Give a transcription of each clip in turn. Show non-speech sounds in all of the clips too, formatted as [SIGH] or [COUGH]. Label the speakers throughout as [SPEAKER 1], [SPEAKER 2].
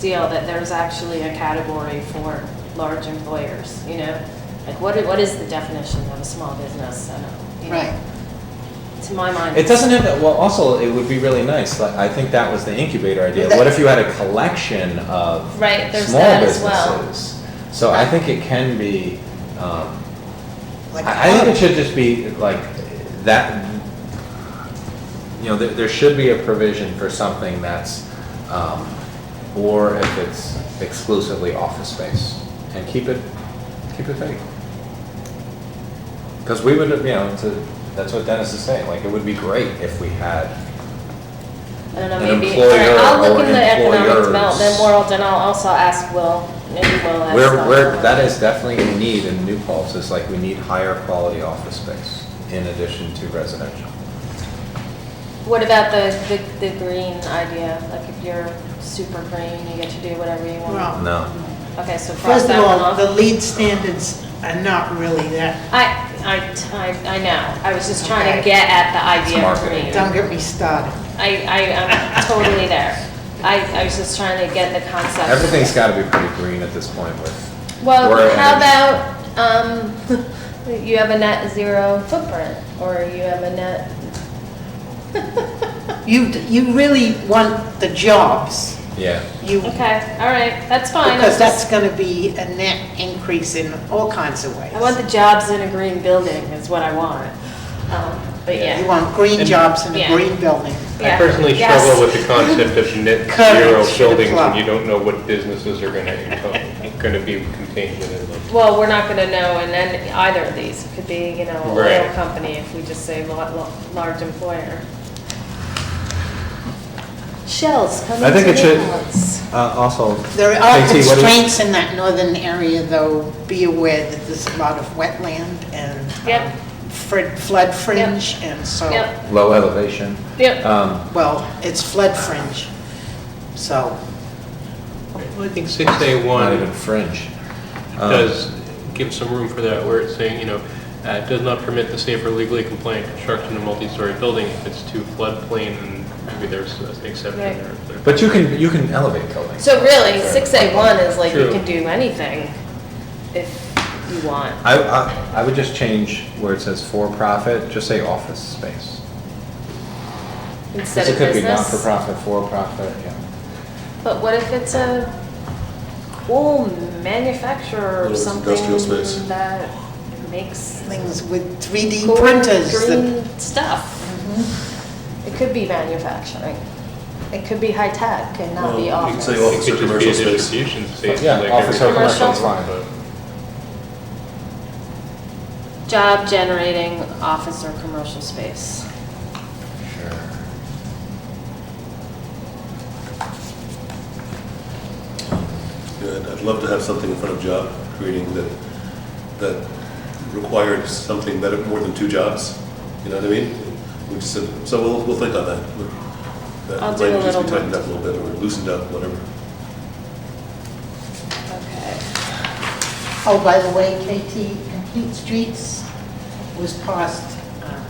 [SPEAKER 1] deal that there's actually a category for large employers, you know? Like, what, i- what is the definition of a small business? I don't- you know,
[SPEAKER 2] Right.
[SPEAKER 1] To my mind.
[SPEAKER 3] It doesn't have that, well, also, it would be really nice, like, I think that was the incubator idea. What if you had a collection of
[SPEAKER 1] Right, there's
[SPEAKER 3] small
[SPEAKER 1] that as well.
[SPEAKER 3] businesses? So I think it can be, um,
[SPEAKER 2] Like
[SPEAKER 3] I, I think it should just be like that, you know, there, there should be a provision for something that's, um, or if it's exclusively office space and keep it, keep it vague. Because we would, have, you know, to, that's what Dennis is saying, like, it would be great if we had,
[SPEAKER 1] I don't know,
[SPEAKER 3] an
[SPEAKER 1] maybe, all
[SPEAKER 3] employer
[SPEAKER 1] right, I'll
[SPEAKER 3] or
[SPEAKER 1] look in the economic
[SPEAKER 3] employers.
[SPEAKER 1] development world, and I'll also ask Will, maybe Will has.
[SPEAKER 3] where,
[SPEAKER 1] thought
[SPEAKER 3] where,
[SPEAKER 1] about
[SPEAKER 3] that
[SPEAKER 1] it.
[SPEAKER 3] is definitely a need in New Paltz, is like, we need higher quality office space in addition to residential.
[SPEAKER 1] What about the, the, the green idea? Like, if you're super green, you get to do whatever you want?
[SPEAKER 2] Well,
[SPEAKER 3] No.
[SPEAKER 1] Okay, so cross
[SPEAKER 2] First of
[SPEAKER 1] that one
[SPEAKER 2] all, the
[SPEAKER 1] off.
[SPEAKER 2] lead standards are not really that,
[SPEAKER 1] I, I, I, I know, I was just trying to
[SPEAKER 2] Okay.
[SPEAKER 1] get at the idea
[SPEAKER 3] Smart
[SPEAKER 1] for
[SPEAKER 3] idea.
[SPEAKER 1] me.
[SPEAKER 2] don't get me started.
[SPEAKER 1] I, I, I'm totally there. I, I was just trying to get the concept.
[SPEAKER 3] Everything's got to be pretty green at this point with.
[SPEAKER 1] Well,
[SPEAKER 3] We're at
[SPEAKER 1] how
[SPEAKER 3] it.
[SPEAKER 1] about, um, [LAUGHS] you have a net zero footprint, or you have a net, [LAUGHS]
[SPEAKER 2] You, you really want the jobs,
[SPEAKER 3] Yeah.
[SPEAKER 2] you,
[SPEAKER 1] okay, all right, that's fine. I'm
[SPEAKER 2] because that's
[SPEAKER 1] just-
[SPEAKER 2] gonna be a net increase in all kinds of ways.
[SPEAKER 1] I want the jobs in a green building is what I want. Um, But
[SPEAKER 2] You
[SPEAKER 1] yeah,
[SPEAKER 2] want green
[SPEAKER 4] And-
[SPEAKER 2] jobs in a
[SPEAKER 1] Yeah.
[SPEAKER 2] green building.
[SPEAKER 1] Yeah.
[SPEAKER 4] I personally
[SPEAKER 1] Yes.
[SPEAKER 4] struggle with the concept of
[SPEAKER 3] [LAUGHS]
[SPEAKER 4] net
[SPEAKER 2] Coverage
[SPEAKER 4] zero
[SPEAKER 2] should
[SPEAKER 4] buildings when
[SPEAKER 2] apply.
[SPEAKER 4] you don't know what businesses are gonna, encom- [LAUGHS] gonna be contained within them.
[SPEAKER 1] well, we're not gonna know, and then either of these It could be, you know, a oil
[SPEAKER 4] Right.
[SPEAKER 1] company if we just say lo- lo- large employer. Shells
[SPEAKER 3] I
[SPEAKER 1] coming
[SPEAKER 3] think
[SPEAKER 1] to
[SPEAKER 3] it should-
[SPEAKER 1] Newport's.
[SPEAKER 3] Also.
[SPEAKER 2] There are constraints in that northern area, though, be aware that there's a lot of wetland and
[SPEAKER 1] Yep.
[SPEAKER 2] um, frid- flood fringe, and so,
[SPEAKER 1] Yep,
[SPEAKER 3] Low elevation.
[SPEAKER 1] yep.
[SPEAKER 3] Um,
[SPEAKER 2] well, it's flood fringe, so.
[SPEAKER 4] Well, I think six A
[SPEAKER 3] Not even
[SPEAKER 4] one
[SPEAKER 3] fringe. Um,
[SPEAKER 4] does give some room for that, where it's saying, you know, uh, does not permit the safe or legally compliant construction of multi-story building if it's too floodplain, and maybe there's an exception
[SPEAKER 1] Right.
[SPEAKER 4] there.
[SPEAKER 3] But you can, you can elevate buildings.
[SPEAKER 1] So really, six A one is like you
[SPEAKER 4] True.
[SPEAKER 1] can do anything if you want.
[SPEAKER 3] I, I, I would just change where it says for-profit, just say office space. 'Cause
[SPEAKER 1] Instead of
[SPEAKER 3] It could be
[SPEAKER 1] business.
[SPEAKER 3] not-for-profit, for-profit, yeah.
[SPEAKER 1] But what if it's a wool manufacturer
[SPEAKER 5] What if
[SPEAKER 1] or
[SPEAKER 5] it's
[SPEAKER 1] something
[SPEAKER 5] industrial space?
[SPEAKER 1] that makes
[SPEAKER 2] things with 3D
[SPEAKER 1] cool
[SPEAKER 2] printers. that-
[SPEAKER 1] green stuff? Mm-hmm. It could be manufacturing. It could be high tech and not
[SPEAKER 5] Well,
[SPEAKER 1] be
[SPEAKER 5] you can
[SPEAKER 1] office.
[SPEAKER 5] say
[SPEAKER 4] It
[SPEAKER 5] office or
[SPEAKER 4] could just be
[SPEAKER 5] commercial
[SPEAKER 4] a
[SPEAKER 5] space.
[SPEAKER 4] distribution space.
[SPEAKER 3] Yeah,
[SPEAKER 4] like
[SPEAKER 3] office
[SPEAKER 4] everything
[SPEAKER 3] or
[SPEAKER 4] else,
[SPEAKER 1] commercial is
[SPEAKER 3] fine.
[SPEAKER 4] but-
[SPEAKER 1] Job generating office or commercial space.
[SPEAKER 3] Sure.
[SPEAKER 5] Yeah, I'd- I'd love to have something in front of job creating that, that required something better, more than two jobs. You know what I mean? We just said, so we'll, we'll think on that. That
[SPEAKER 1] I'll do a
[SPEAKER 5] language needs to be
[SPEAKER 1] little
[SPEAKER 5] tightened up a little bit or loosened up, whatever.
[SPEAKER 1] Okay.
[SPEAKER 2] Oh, by the way, KT, Complete Streets was passed um,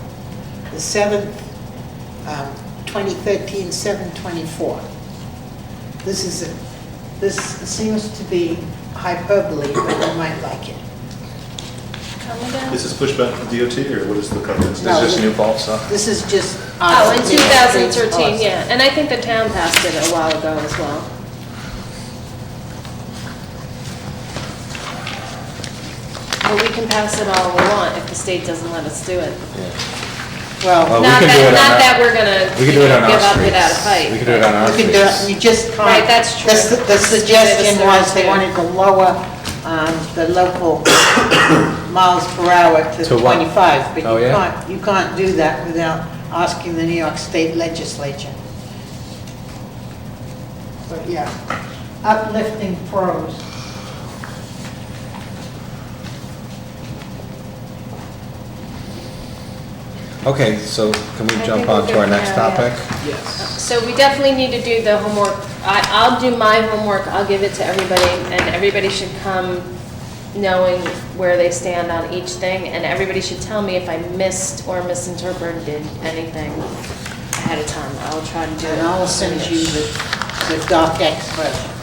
[SPEAKER 2] the 7th, um, 2013, 7/24. This is, a- this seems to be hyperbole, but I might like it.
[SPEAKER 1] Coming down.
[SPEAKER 5] Is this pushback to DOT or what is the context?
[SPEAKER 2] No.
[SPEAKER 3] Is this New Paltz stuff?
[SPEAKER 2] This is just.
[SPEAKER 1] Oh, in
[SPEAKER 2] us
[SPEAKER 1] two
[SPEAKER 2] being
[SPEAKER 1] thousand
[SPEAKER 2] streets
[SPEAKER 1] thirteen,
[SPEAKER 2] passed.
[SPEAKER 1] yeah, and I think the town passed it a while ago as well. But we can pass it all we want if the state doesn't let us do it.
[SPEAKER 3] Yeah.
[SPEAKER 2] Well,
[SPEAKER 3] Well,
[SPEAKER 1] Not
[SPEAKER 3] Uh, we
[SPEAKER 1] that,
[SPEAKER 3] can do it on
[SPEAKER 1] not
[SPEAKER 3] our-
[SPEAKER 1] that we're gonna,
[SPEAKER 3] We
[SPEAKER 1] you
[SPEAKER 3] could do it on
[SPEAKER 1] know,
[SPEAKER 3] our
[SPEAKER 1] give up without a
[SPEAKER 3] streets.
[SPEAKER 1] fight.
[SPEAKER 3] We could do it on our
[SPEAKER 2] you could do, it-
[SPEAKER 3] streets.
[SPEAKER 2] you just can't.
[SPEAKER 1] Right, that's true.
[SPEAKER 2] The su- The suggestion was they wanted to lower um, the local [COUGHS] miles per hour
[SPEAKER 3] To
[SPEAKER 2] to
[SPEAKER 3] what?
[SPEAKER 2] 25. But
[SPEAKER 3] Oh,
[SPEAKER 2] you
[SPEAKER 3] yeah?
[SPEAKER 2] can't, you can't do that without asking the New York State Legislature. But yeah, uplifting pros.
[SPEAKER 3] Okay, so can
[SPEAKER 1] I
[SPEAKER 3] we
[SPEAKER 1] think
[SPEAKER 3] jump
[SPEAKER 1] we're
[SPEAKER 3] on to
[SPEAKER 1] good
[SPEAKER 3] our next
[SPEAKER 1] now, yeah.
[SPEAKER 3] topic?
[SPEAKER 1] So we definitely need to do the homework. I, I'll do my homework, I'll give it to everybody, and everybody should come knowing where they stand on each thing, and everybody should tell me if I missed or misinterpreted anything ahead of time. I'll try to do it.
[SPEAKER 2] And I'll send you the the doc X version.